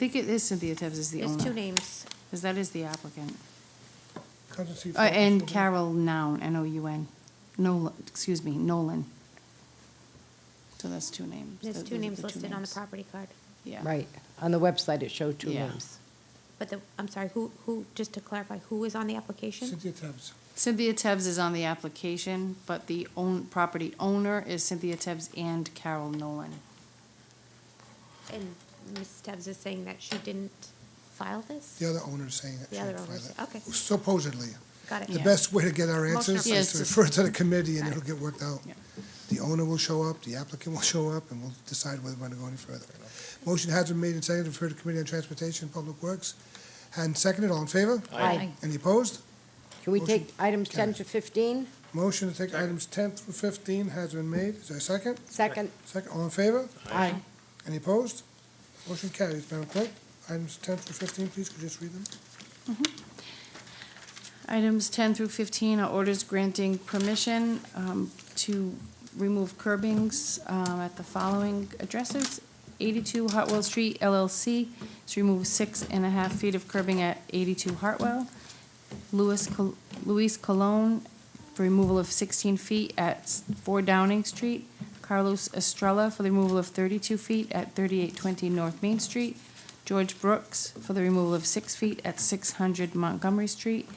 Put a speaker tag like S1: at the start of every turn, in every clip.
S1: think it is Cynthia Tevz is the
S2: There's two
S1: owner,
S2: names.
S1: because that is the applicant.
S3: Contingency
S1: Uh,
S3: for-
S1: And Carol Noun, N-O-U-N, Nolan, excuse me, Nolan. So that's two names.
S2: There's
S1: Those
S2: two
S1: are
S2: names
S1: two
S2: listed on the
S1: names.
S2: property card.
S1: Yeah.
S4: Right, on the website, it showed two
S1: Yeah.
S4: names.
S2: But the, I'm sorry, who, who, just to clarify, who is on the application?
S3: Cynthia Tebs.
S1: Cynthia Tevz is on the application, but the own, property owner is Cynthia Tevz and Carol Nolan.
S2: And Ms. Stubbs is saying that she didn't file this?
S3: The other owner's saying that.
S2: The
S3: she
S2: other
S3: filed
S2: owner's-
S3: it.
S2: okay.
S3: Supposedly.
S2: Got
S3: The
S2: it.
S3: best way to get our answers
S2: Motion
S1: Yes,
S3: is
S1: to-
S3: to refer it to the committee and it'll get worked out.
S1: Yeah.
S3: The owner will show up, the applicant will show up, and we'll decide whether we're going to go any further. Motion has been made and seconded to refer to Committee on Transportation and Public Works. And seconded, all in favor?
S4: Aye.
S3: Any opposed?
S4: Can we
S3: Motion
S4: take items 10
S3: carries.
S4: to 15?
S3: Motion to take items ten through fifteen has been made. Is there a second?
S4: Second?
S3: Second, all in favor?
S4: Aye.
S3: Any opposed? Motion carries. Madam Clerk, items ten through fifteen, please, could you just read them?
S1: Items 10 through 15 are orders granting permission um, to remove curbings um, at the following addresses. 82 Hartwell Street LLC to remove six and a half feet of curbing at 82 Hartwell. Louis Col- Luis Colon for removal of 16 feet at 4 Downing Street. Carlos Estrella for the removal of 32 feet at 3820 North Main Street. George Brooks for the removal of 6 feet at 600 Montgomery Street.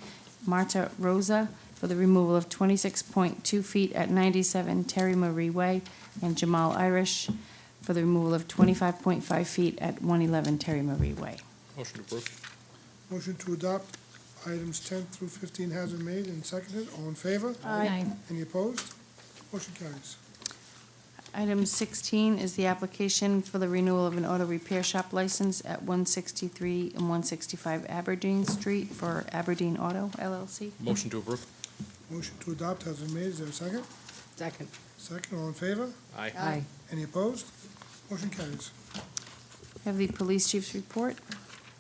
S1: Marta Rosa for the removal of 26.2 feet at 97 Terry Marie Way. And Jamal Irish for the removal of 25.5 feet at 111 Terry Marie Way.
S5: Motion approved.
S3: Motion to adopt items ten through fifteen has been made and seconded. All in favor?
S4: Aye.
S3: Any opposed? Motion carries.
S1: Item 16 is the application for the renewal of an auto repair shop license at 163 and 165 Aberdeen Street for Aberdeen Auto LLC.
S5: Motion to approve.
S3: Motion to adopt has been made. Is there a second?
S4: Second?
S3: Second, all in favor?
S4: Aye.
S3: Any opposed? Motion carries.
S1: Have the police chief's report.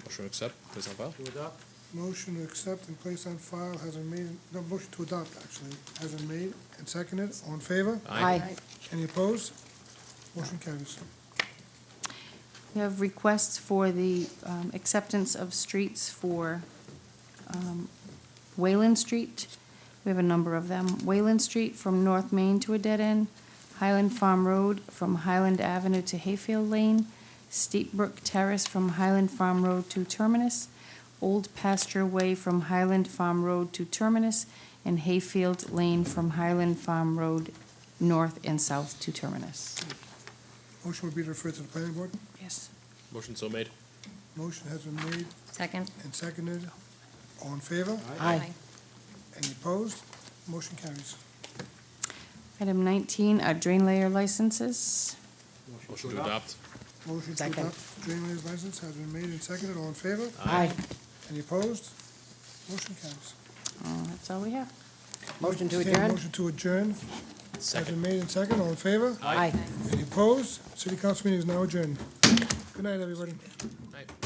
S5: Motion to accept, place on file.
S3: Motion to accept and place on file has been made, no, motion to adopt, actually, has been made and seconded. All in favor?
S4: Aye.
S3: Any opposed? Motion carries.
S1: We have requests for the um, acceptance of streets for um, Wayland Street. We have a number of them. Wayland Street from North Main to a dead end, Highland Farm Road from Highland Avenue to Hayfield Lane, Steep Brook Terrace from Highland Farm Road to Terminus, Old Pasture Way from Highland Farm Road to Terminus, and Hayfield Lane from Highland Farm Road north and south to Terminus.
S3: Motion would be referred to the planning board.
S1: Yes.
S5: Motion so made.
S3: Motion has been made
S6: Second.
S3: and seconded. All in favor?
S4: Aye.
S3: Any opposed? Motion carries.
S1: Item 19 are drain layer licenses.
S5: Motion to adopt.
S3: Motion to
S4: Second.
S3: adopt drain layers license has been made and seconded. All in favor?
S4: Aye.
S3: Any opposed? Motion carries.
S1: Uh, That's all we have.
S4: Motion to
S3: Entertained
S4: adjourn?
S3: Motion to adjourn has been made and seconded. All in favor?
S4: Aye.
S3: Any opposed? City Council meeting is now adjourned. Good night, everybody.
S5: Aye.